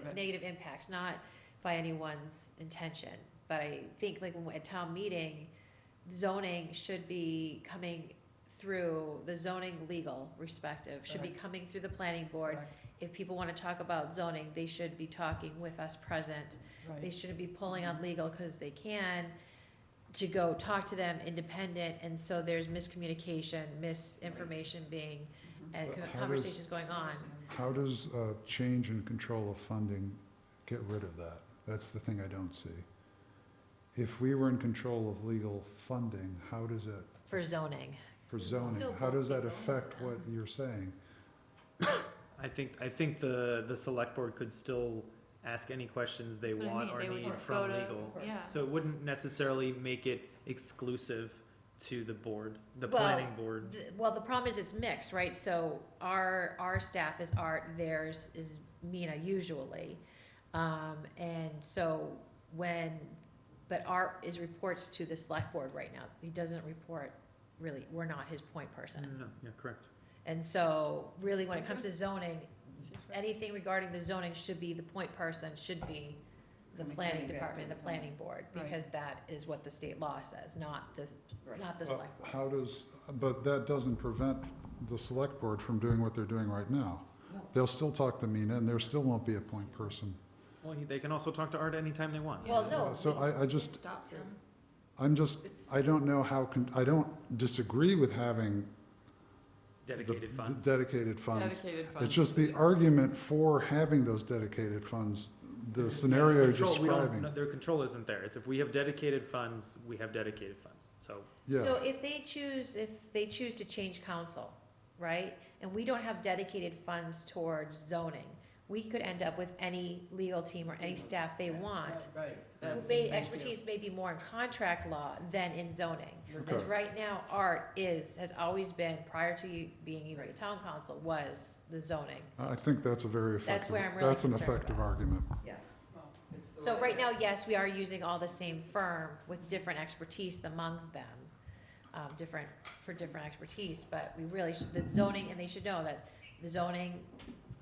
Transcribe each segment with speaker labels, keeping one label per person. Speaker 1: Right.
Speaker 2: negative impacts, not by anyone's intention. But I think like when, we- at town meeting, zoning should be coming through, the zoning legal respective, should be
Speaker 1: Correct.
Speaker 2: coming through the planning board. If people wanna talk about zoning, they should be talking with us present. They
Speaker 1: Right,
Speaker 2: shouldn't be pulling on legal because they can to go talk to them independent. And so there's miscommunication, misinformation being, and
Speaker 3: But how does-
Speaker 2: conversations going on.
Speaker 3: How does uh, change in control of funding get rid of that? That's the thing I don't see. If we were in control of legal funding, how does it,
Speaker 2: for zoning.
Speaker 3: for zoning, how does that affect what you're saying?
Speaker 4: I think, I think the, the select board could still ask any questions they
Speaker 5: That's what I
Speaker 4: want
Speaker 5: mean,
Speaker 4: or
Speaker 5: they would
Speaker 4: need
Speaker 5: just
Speaker 4: from
Speaker 5: go to-
Speaker 4: legal.
Speaker 5: Yeah.
Speaker 4: So it wouldn't necessarily make it exclusive to the board, the
Speaker 2: Well,
Speaker 4: planning board.
Speaker 2: Th- Well, the problem is it's mixed, right? So our, our staff is art, theirs is Mina usually. Um, and so when, but art is reports to the select board right now. He doesn't report, really, we're not his point person.
Speaker 4: Mm,
Speaker 3: Mm-hmm.
Speaker 4: No, yeah, correct.
Speaker 2: And so really, when it comes to zoning, anything regarding the zoning should be the point person, should be the
Speaker 1: Coming-
Speaker 2: planning
Speaker 1: coming back
Speaker 2: department,
Speaker 1: to
Speaker 2: the
Speaker 1: the
Speaker 2: planning board,
Speaker 1: Right.
Speaker 2: because that is what the state law says, not the,
Speaker 1: right.
Speaker 2: not the
Speaker 3: Well,
Speaker 2: select. board.
Speaker 3: How does, but that doesn't prevent the select board from doing what they're doing right now.
Speaker 1: No.
Speaker 3: They'll still talk to Mina, and there still won't be a point person.
Speaker 4: Well, he- they can also talk to Art anytime they want.
Speaker 2: Well, no.
Speaker 3: So
Speaker 2: we-
Speaker 3: I, I just,
Speaker 5: Stop them.
Speaker 3: I'm just,
Speaker 5: It's-
Speaker 3: I don't know how, con- I don't disagree with having the-
Speaker 4: Dedicated
Speaker 3: the
Speaker 4: funds.
Speaker 3: Dedicated funds.
Speaker 5: Dedicated funds.
Speaker 3: It's just the argument for having those dedicated funds, the scenario you're
Speaker 4: Control- we don't-
Speaker 3: describing.
Speaker 4: no, Their control isn't there. It's if we have dedicated funds, we have dedicated funds. So
Speaker 3: Yeah,
Speaker 2: So if they choose, if they choose to change council, right, and we don't have dedicated funds towards zoning, we could end up with any legal team or any staff they want. Who
Speaker 1: Right, that's.
Speaker 2: may,
Speaker 1: thank you.
Speaker 2: expertise may be more in contract law than in zoning.
Speaker 1: You're
Speaker 2: Because
Speaker 3: Okay.
Speaker 2: right now, art is, has always been, prior to being even the town council, was the zoning.
Speaker 3: I think that's a very
Speaker 2: That's
Speaker 3: effective,
Speaker 2: where I'm really
Speaker 3: that's an
Speaker 2: concerned
Speaker 3: effective
Speaker 2: about.
Speaker 3: argument.
Speaker 1: right. Yes. It's the
Speaker 2: So
Speaker 1: way-
Speaker 2: right now, yes, we are using all the same firm with different expertise among them, um, different, for different expertise, but we really, should the zoning, and they should know that the zoning,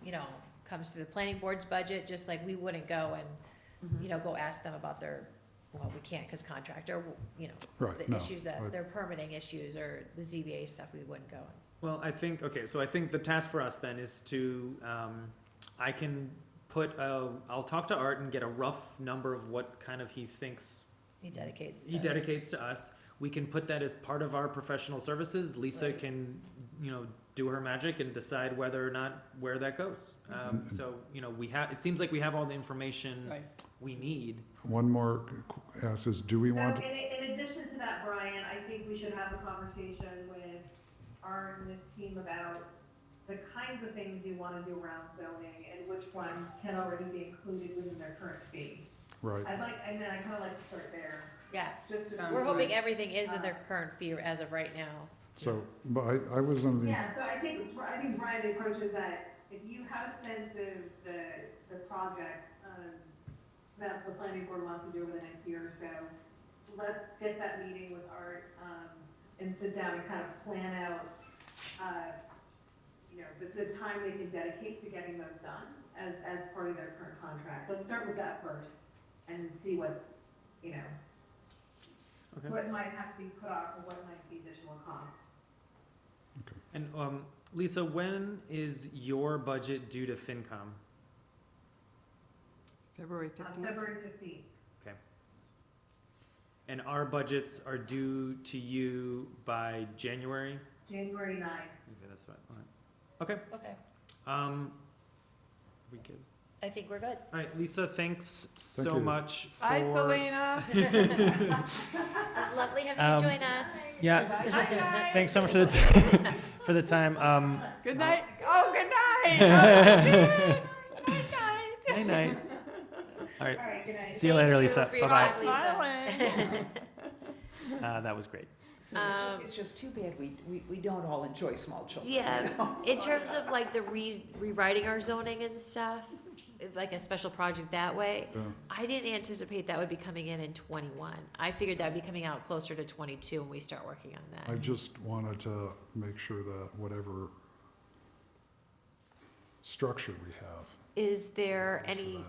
Speaker 2: you know, comes through the planning board's budget, just like we wouldn't go and, you know, go ask them about their, well, we can't, cause contractor, you know,
Speaker 3: Right,
Speaker 2: the
Speaker 3: no.
Speaker 2: issues that,
Speaker 3: right.
Speaker 2: their permitting issues or the ZBA stuff, we wouldn't go.
Speaker 4: Well, I think, okay, so I think the task for us then is to, um, I can put, uh, I'll talk to Art and get a rough number of what kind of he thinks
Speaker 3: Mm-hmm.
Speaker 2: He dedicates.
Speaker 4: he
Speaker 2: to-
Speaker 4: dedicates to us. We can put that as part of our professional services. Lisa
Speaker 1: Right.
Speaker 4: can, you know, do her magic and decide whether or not where that goes. Um,
Speaker 3: Mhm.
Speaker 4: so, you know, we have, it seems like we have all the information
Speaker 1: Right.
Speaker 4: we need.
Speaker 3: One more qu- ask is, do we
Speaker 6: So
Speaker 3: want,
Speaker 6: in, in addition to that, Brian, I think we should have a conversation with our and this team about the kinds of things you want to do around zoning and which ones can already be included within their current fee.
Speaker 3: right,
Speaker 6: I'd like, I mean, I kind of like to start there,
Speaker 2: Yeah,
Speaker 6: just to.
Speaker 1: Sounds
Speaker 2: we're hoping
Speaker 1: right. Uh.
Speaker 2: everything is in their current fee as of right now.
Speaker 3: so, but I, I was under the,
Speaker 6: Yeah, so I think, I think Brian approaches that, if you have a sense of the, the project, um, that the planning board wants to do over the next year or so, let's get that meeting with Art, um, and sit down and kind of plan out, uh, you know, the, the time they can dedicate to getting those done as, as part of their current contract. Let's start with that first and see what, you know,
Speaker 4: Okay.
Speaker 6: what might have to be put off or what might be additional cost.
Speaker 4: And, um, Lisa, when is your budget due to FinCom?
Speaker 5: February
Speaker 6: On
Speaker 5: fifteenth.
Speaker 6: February fifteenth.
Speaker 4: And our budgets are due to you by January?
Speaker 6: January ninth.
Speaker 4: Okay, that's what, all right.
Speaker 2: Okay,
Speaker 4: Um, we good.
Speaker 2: I think we're good.
Speaker 4: All right, Lisa, thanks so
Speaker 3: you.
Speaker 4: much for.
Speaker 5: Hi, Selena.
Speaker 2: It's lovely
Speaker 4: Um,
Speaker 2: having you join us.
Speaker 4: Yeah,
Speaker 5: Hi, guys.
Speaker 4: thanks so much for the, t- for the time. Um,
Speaker 5: Good night. Oh, good night. Oh, good night. Good night.
Speaker 4: night, night. All
Speaker 6: All
Speaker 4: right,
Speaker 6: right, good night.
Speaker 4: see you later,
Speaker 2: Thank you
Speaker 4: Lisa.
Speaker 2: for your
Speaker 4: Bye-bye.
Speaker 2: time,
Speaker 5: Smiling.
Speaker 4: Uh, that was great.
Speaker 1: It's
Speaker 2: Um,
Speaker 1: just, it's just too bad we, we, we don't all enjoy small children. you
Speaker 2: Yeah,
Speaker 1: know?
Speaker 2: in terms of like the re- rewriting our zoning and stuff, like a special project that way,
Speaker 3: yeah,
Speaker 2: I didn't anticipate that would be coming in in twenty-one. I figured that'd be coming out closer to twenty-two when we start working
Speaker 3: I
Speaker 2: on that.
Speaker 3: just wanted to make sure that whatever structure we have,
Speaker 2: Is there
Speaker 3: Thanks for
Speaker 2: any
Speaker 3: that.